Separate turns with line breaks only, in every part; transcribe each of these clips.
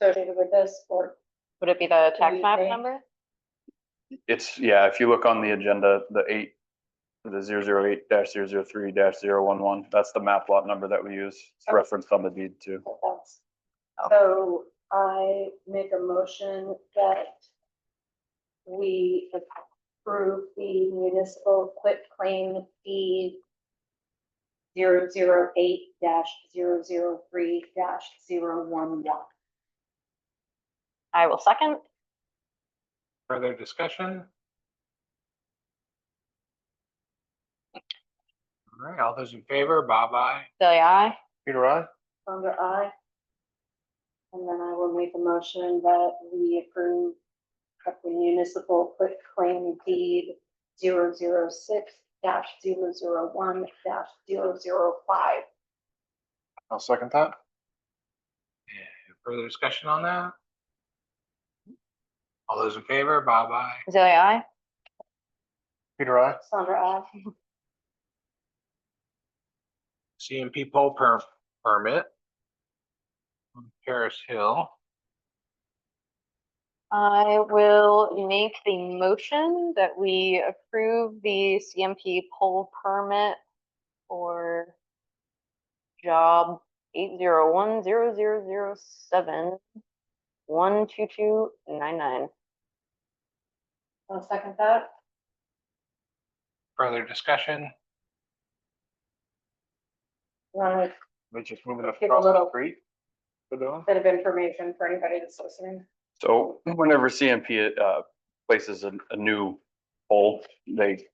associated with this or?
Would it be the
do
tax
you
map
think?
number?
It's, yeah, if you look on the agenda, the eight, the zero zero eight dash zero zero three dash zero one one, that's the map lot number that we use. It's
Okay.
referenced on the deed too.
what else? So I make a motion that we approve the municipal quit claim deed zero zero eight dash zero zero three dash zero one one.
I will second.
Further discussion? All right, all those in favor, Bob, aye.
Delia, I.
Peter, I?
Under I. And then I will make a motion that we approve of the municipal quit claim deed zero zero six dash zero zero one dash zero zero five.
I'll second that.
Yeah, Further discussion on that? All those in favor, Bob, aye.
Delia, I.
Peter, I?
Sandra, I.
CMP poll per, permit. on Paris Hill,
I will make the motion that we approve the CMP poll permit for job eight zero one zero zero zero seven one two two nine nine.
I'll second that.
further discussion?
Want a
We just moving
Give a across the little-
street?
bit of information for anybody that's listening.
So whenever CMP uh, places a, a new poll, they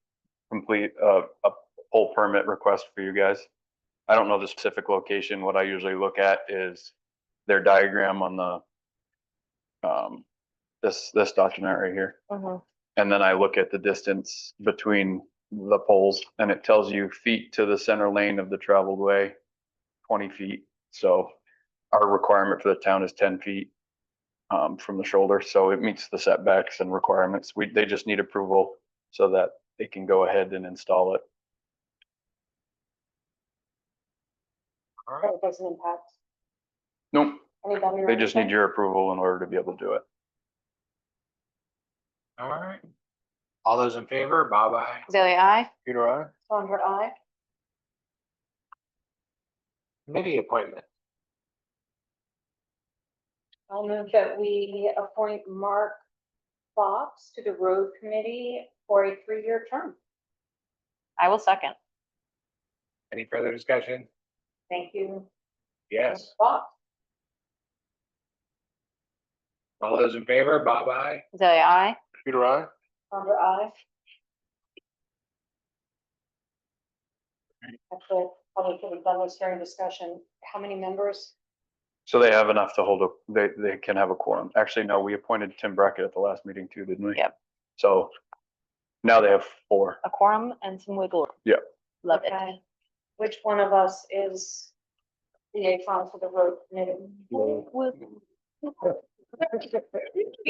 complete a, a poll permit request for you guys. I don't know the specific location. What I usually look at is their diagram on the um, this, this document right here.
Mhm.
Mm-hmm.
And then I look at the distance between the poles and it tells you feet to the center lane of the traveled way, twenty feet. So our requirement for the town is ten feet um, from the shoulder, so it meets the setbacks and requirements. We, they just need approval so that they can go ahead and install it.
All right,
It doesn't impact
Nope,
anybody. or
they just need
anything.
your approval in order to be able to do it.
all right. All those in favor, Bob, aye.
Delia, I.
Peter, I?
Sandra, I.
Committee appointment,
I'll move that we appoint Mark Fox to the road committee for a three-year term.
I will second.
any further discussion?
Thank you. Mark
Yes,
Fox.
all those in favor, Bob, aye.
Delia, I.
Peter, I?
Sandra, I. Actually, probably could have done this during discussion. How many members?
So they have enough to hold up, they, they can have a quorum. Actually, no, we appointed Tim Brackett at the last meeting too, didn't we?
Yep.
So now they have four.
A quorum and some wiggle. room.
Yep.
Love it.
Okay. Which one of us is the liaison for the road committee?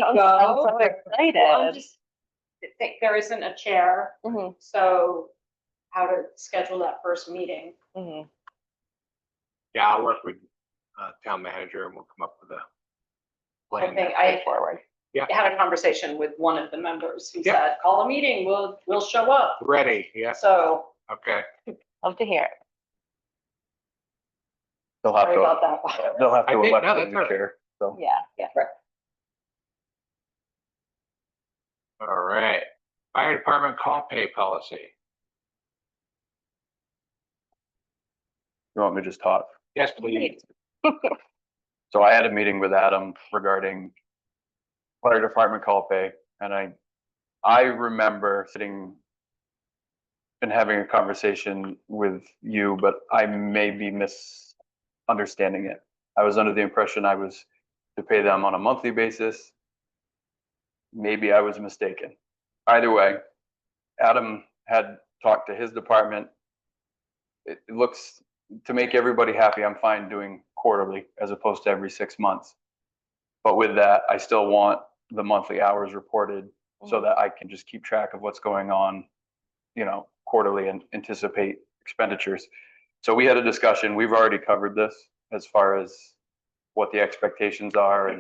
I'm so excited.
just, think there isn't a chair,
Mhm,
so how to schedule that first meeting.
mhm.
Yeah, I'll work with uh, town manager and we'll come up with a plan.
Okay, I
Forward.
had a conversation with one of the members who
Yeah.
said, call a meeting, we'll, we'll show up.
Ready, yes,
So
okay.
Love to hear it.
They'll have
sorry
to,
about that.
they'll have
I
to
think-
elect
no,
a
that's all
new
right.
chair, so.
Yeah.
All right, fire department call pay policy.
You want me to just talk?
Yes, please.
So I had a meeting with Adam regarding fire department call pay, and I, I remember sitting and having a conversation with you, but I may be misunderstanding it. I was under the impression I was to pay them on a monthly basis. Maybe I was mistaken. Either way, Adam had talked to his department. It it looks to make everybody happy, I'm fine doing quarterly as opposed to every six months. But with that, I still want the monthly hours reported so that I can just keep track of what's going on, you know, quarterly and anticipate expenditures. So we had a discussion, we've already covered this as far as what the expectations are and